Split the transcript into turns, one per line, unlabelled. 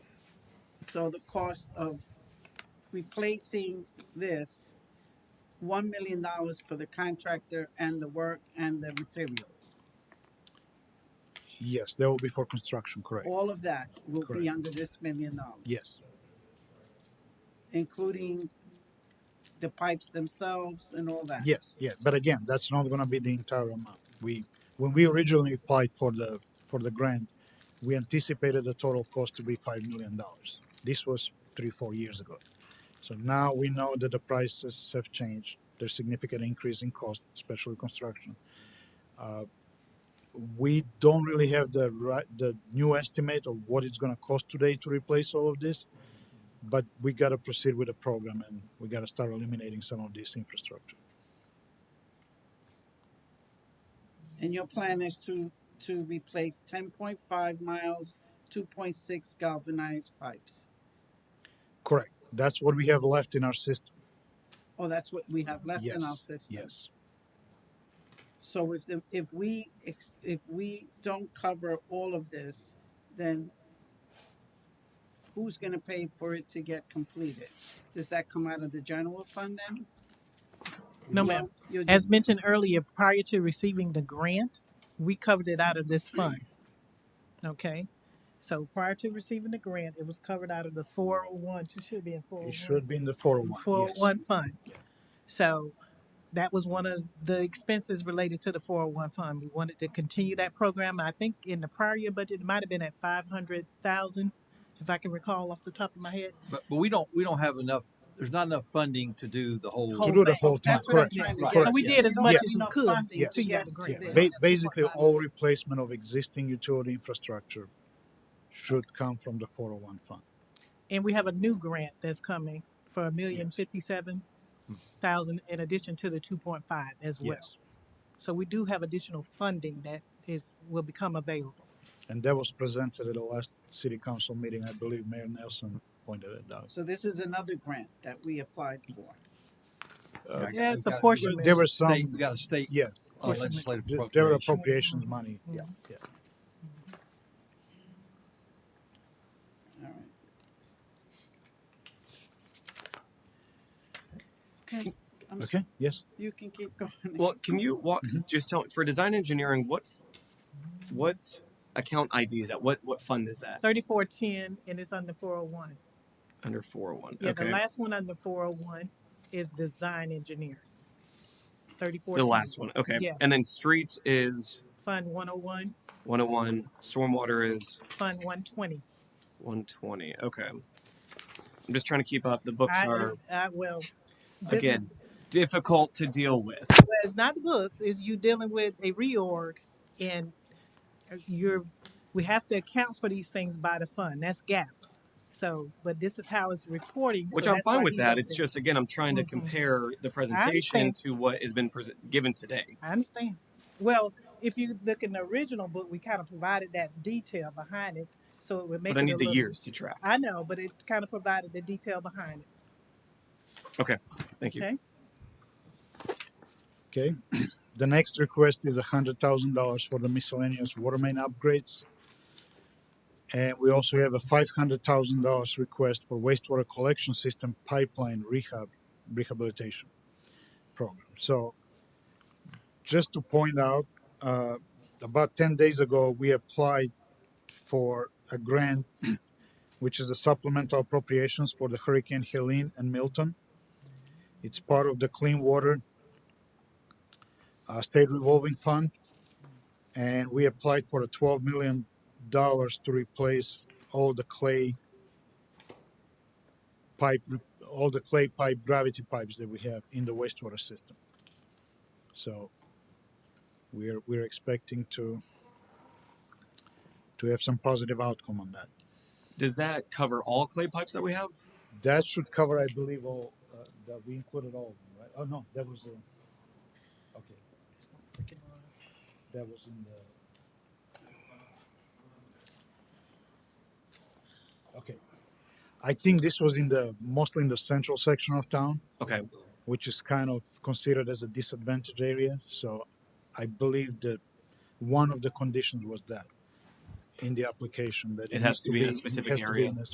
So the cost of replacing this, one million dollars for the contractor and the work and the materials.
Yes, that will be for construction, correct?
All of that will be
Correct.
under this million dollars.
Yes,
Including the pipes themselves and all that.
yes, yes. But again, that's not gonna be the entire amount. We, when we originally applied for the, for the grant, we anticipated the total cost to be five million dollars. This was three, four years ago. So now we know that the prices have changed. There's significant increase in cost, especially construction. Uh, We don't really have the right, the new estimate of what it's gonna cost today to replace all of this. But we gotta proceed with the program and we gotta start eliminating some of this infrastructure.
And your plan is to, to replace ten point five miles, two point six galvanized pipes.
Correct. That's what we have left in our system.
Oh, that's what we have left in our
Yes,
system.
yes.
So if the, if we, ex- if we don't cover all of this, then who's gonna pay for it to get completed? Does that come out of the general fund then?
No, ma'am.
You're-
As mentioned earlier, prior to receiving the grant, we covered it out of this fund. Okay? So prior to receiving the grant, it was covered out of the four oh one, it should be in four oh one.
It should be in the four oh one.
Four oh one fund. So that was one of the expenses related to the four oh one fund. We wanted to continue that program. I think in the prior year budget, it might have been at five hundred thousand, if I can recall off the top of my head.
But, but we don't, we don't have enough, there's not enough funding to do the whole.
To
Whole
do the
thing.
whole thing,
That's what I'm
correct.
trying to
Correct.
get.
So we
at.
did as
You don't
much as
have
we
enough
could
funding
Yes.
to
to
get
get the
to
grant.
this.
Yeah,
Ba-
That's what
basically,
I'm-
all replacement of existing utility infrastructure should come from the four oh one fund.
And we have a new grant that's coming for a million
Yes.
fifty-seven thousand in addition to the two point five as well.
Yes.
So we do have additional funding that is, will become available.
And that was presented at the last city council meeting. I believe Mayor Nelson pointed it out.
So this is another grant that we applied for.
Uh,
I-
Yeah, it's
I-
a portion.
There were
State,
some,
we got a state
yeah,
uh, legislative
th- there were
appropriation.
appropriations money.
Mm-hmm.
Yeah.
Yeah.
All right. Okay, I'm s-
Okay, yes.
you can keep going.
Well, can you walk, just tell me for design engineering what what account ID is that? What what fund is that
Thirty-four ten and it's under four oh one.
under 401?
Yeah,
okay.
the last one under four oh one is design engineering.
It's
Thirty-four.
the last one. Okay.
oh Yeah.
And then streets is
Fund one oh one,
101, stormwater is
fund one twenty.
120. Okay. I'm just trying to keep up. The books are
I, well, this is,
again difficult to deal with.
well, it's not the books, is you dealing with a reorg and uh, you're, we have to account for these things by the fund, that's gap. So, but this is how it's reporting.
Which
so
I'm
that's why
fine with
he's
that.
up
It's
there.
just again I'm trying to
Mhm.
compare the presentation
understand.
to what has been pres given today.
I understand. Well, if you look in the original book, we kind of provided that detail behind it, so it would make
But
it
I
a
need the
little-
years to track.
I know, but it kind of provided the detail behind it.
Thank you.
Okay.
Okay, the next request is hundred thousand dollars for the miscellaneous water main upgrades. And we also have a five hundred thousand dollars request for wastewater collection system pipeline rehab, rehabilitation program. So just to point out, uh, about ten days ago, we applied for a grant, which is a supplemental appropriations for the Hurricane Helene and Milton. It's part of the Clean Water uh, state revolving fund, and we applied for the twelve million dollars to replace all the clay pipe, all the clay pipe gravity pipes that we have in the wastewater system. So we're we're expecting to to have some positive outcome on that.
Does that cover all clay pipes that we have?
That should cover, I believe, all uh, that we included all, of them, right? Oh no, that was uh, okay. That was in the. Okay. I think this was in the, mostly in the central section of town,
Okay.
which is kind of considered as a disadvantaged area, so I believe that one of the conditions was that in the application, that.
It
needs
has to be in a
it
specific
has to be
area.
in a